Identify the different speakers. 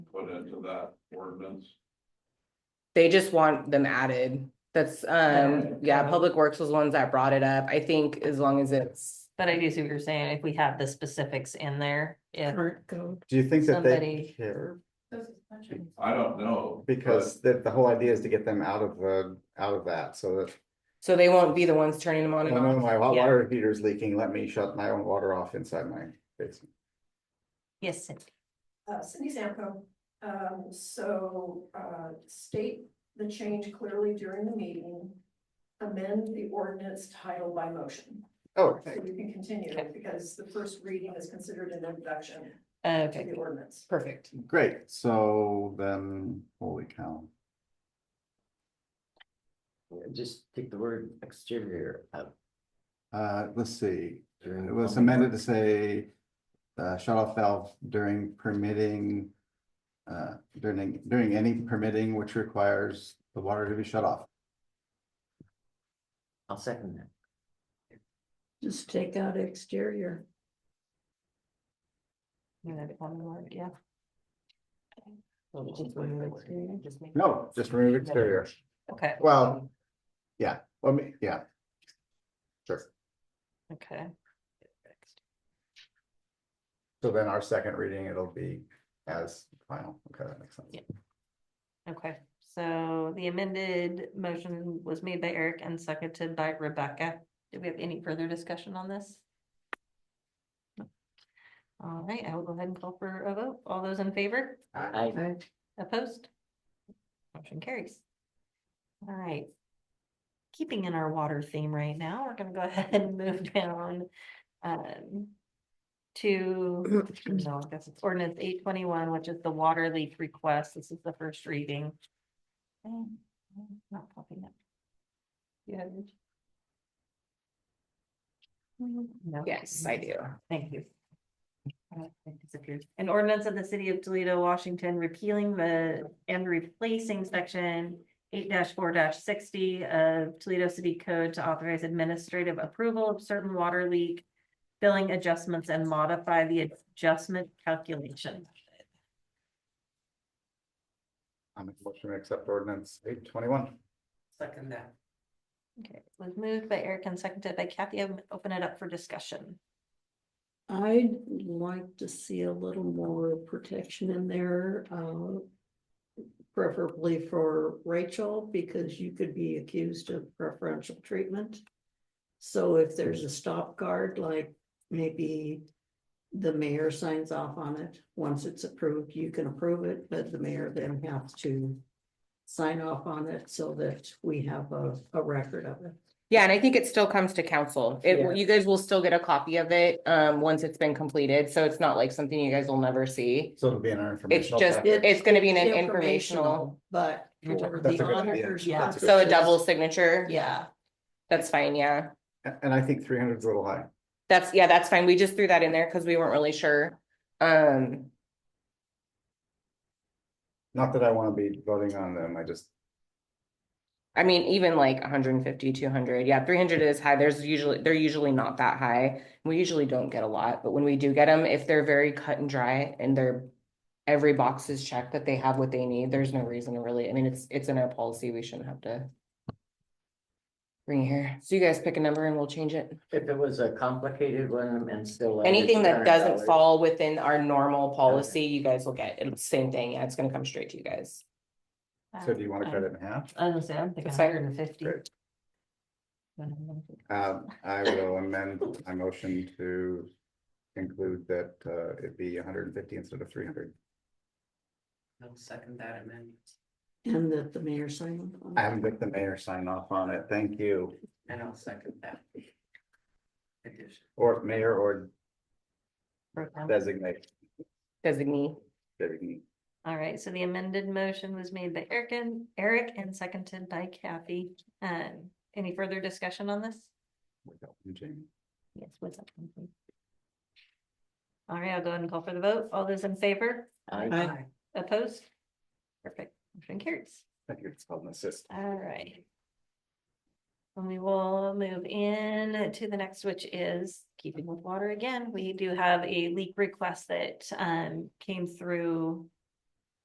Speaker 1: amendment to that ordinance?
Speaker 2: They just want them added. That's, um, yeah, Public Works was the ones that brought it up. I think as long as it's,
Speaker 3: But I do see what you're saying, if we have the specifics in there, if,
Speaker 4: Current code.
Speaker 5: Do you think that they
Speaker 3: Somebody-
Speaker 5: care?
Speaker 1: I don't know. but
Speaker 5: Because the, the whole idea is to get them out of the, out of that, so that,
Speaker 2: so they won't be the ones turning them on
Speaker 5: I
Speaker 2: and
Speaker 5: know
Speaker 2: off.
Speaker 5: my hot
Speaker 3: Yeah.
Speaker 5: water heater's leaking, let me shut my own water off inside my basement.
Speaker 3: yes, Cindy.
Speaker 6: Uh, Cindy Zampo, um, so, uh, state the change clearly during the meeting. Amend the ordinance title by motion,
Speaker 5: Oh,
Speaker 6: so we can continue,
Speaker 3: Okay.
Speaker 6: because the first reading is considered an introduction to
Speaker 3: okay,
Speaker 6: the ordinance.
Speaker 2: Perfect.
Speaker 5: great, so then, holy cow.
Speaker 7: Just take the word exterior out.
Speaker 5: Uh, let's see,
Speaker 7: during
Speaker 5: It was
Speaker 7: plumbing
Speaker 5: amended to
Speaker 7: work.
Speaker 5: say, uh, shut off valve during permitting. Uh, during, during any permitting which requires the water to be shut off.
Speaker 7: I'll second that.
Speaker 4: Just take out exterior.
Speaker 3: You know, the common word, yeah.
Speaker 7: Well,
Speaker 3: Just
Speaker 7: just remove
Speaker 3: remove
Speaker 7: it.
Speaker 3: exterior, just make-
Speaker 5: No, just remove exterior.
Speaker 3: Okay,
Speaker 5: Well, yeah, well, me- yeah. Sure.
Speaker 3: okay.
Speaker 5: So then our second reading, it'll be as final. Okay, that makes sense.
Speaker 3: Yeah. Okay, so the amended motion was made by Eric and seconded by Rebecca. Do we have any further discussion on this? No. All right, I will go ahead and call for a vote. All those in favor?
Speaker 7: I,
Speaker 4: I
Speaker 3: Opposed? Motion carries. All right. Keeping in our water theme right now, we're gonna go ahead and move down. um, To, no, I guess it's ordinance eight twenty-one, which is the water leak request. This is the first reading. Um, Not popping up. You have it? No.
Speaker 2: Yes, I do.
Speaker 3: Thank you. Uh, it disappeared. An ordinance of the city of Toledo, Washington, repealing the and replacing section eight four sixty of Toledo City Code to authorize administrative approval of certain water leak billing adjustments and modify the adjustment calculation.
Speaker 5: I'm a motion to accept ordinance eight twenty-one.
Speaker 7: Second that.
Speaker 3: Okay, it was moved by Eric and seconded by Kathy. I'm gonna Open it up for discussion.
Speaker 4: I'd like to see a little more protection in there, uh. Preferably for Rachel, because you could be accused of preferential treatment. So if there's a stop guard, like maybe. The mayor signs off on it. Once it's approved, you can approve it, but the mayor then has to. Sign off on it so that we have a, a record of it.
Speaker 2: Yeah, and I think it still comes to council.
Speaker 4: Yeah.
Speaker 2: It, you guys will still get a copy of it, um, once it's been completed, so it's not like something you guys will never see.
Speaker 5: So it'll be in our
Speaker 2: It's
Speaker 5: informational.
Speaker 2: just,
Speaker 5: packet.
Speaker 2: it's gonna be an informational,
Speaker 4: But
Speaker 7: You're talking-
Speaker 4: for
Speaker 5: That's
Speaker 4: the
Speaker 5: a good idea.
Speaker 4: auditors.
Speaker 3: Yeah.
Speaker 4: purposes-
Speaker 2: so a double signature.
Speaker 4: Yeah,
Speaker 2: That's fine, yeah.
Speaker 5: And- And I think three hundred's a little high.
Speaker 2: That's, yeah, that's fine. We just threw that in there because we weren't really sure. Um,
Speaker 5: Not that I want to be voting on them. I just,
Speaker 2: I mean, even like 150, 200, yeah, 300 is high. There's usually, they're usually not that high. We usually don't get a lot, but when we do get them, if they're very cut and dry and they're every box is checked that they have what they need, there's no reason to really, I mean, it's, it's in our policy. We shouldn't have to bring it here. So you guys pick a number and we'll change it.
Speaker 7: If it was a complicated one and still. under
Speaker 2: Anything that doesn't
Speaker 7: $200,
Speaker 2: fall within our normal policy, you guys will get. It's same thing. Yeah, it's gonna come straight to you guys.
Speaker 5: so do you want to
Speaker 3: Um,
Speaker 5: cut it in half?
Speaker 3: I was gonna say, I'm thinking
Speaker 2: That's fine.
Speaker 3: hundred and fifty.
Speaker 5: Great. Um, I will amend my motion to include that, uh, it be hundred and fifty instead of three hundred.
Speaker 7: I'll second that amendment.
Speaker 4: and that the mayor signed. on.
Speaker 5: I haven't got the mayor sign off on it, thank you,
Speaker 7: And I'll second that. Addition.
Speaker 5: or mayor or
Speaker 3: Broke down.
Speaker 5: designate.
Speaker 2: Designee.
Speaker 5: designee.
Speaker 3: All right, so the amended motion was made by Eric and Eric and seconded by Kathy. Um, any further discussion on this?
Speaker 5: Without Jamie.
Speaker 3: Yes, what's up? All right, I'll go ahead and call for the vote. All those in favor?
Speaker 7: I,
Speaker 3: Opposed? Perfect, motion carries.
Speaker 5: I think it's called an assist.
Speaker 3: All right. And we will move in to the next, which is keeping with water again. We do have a leak request that um came through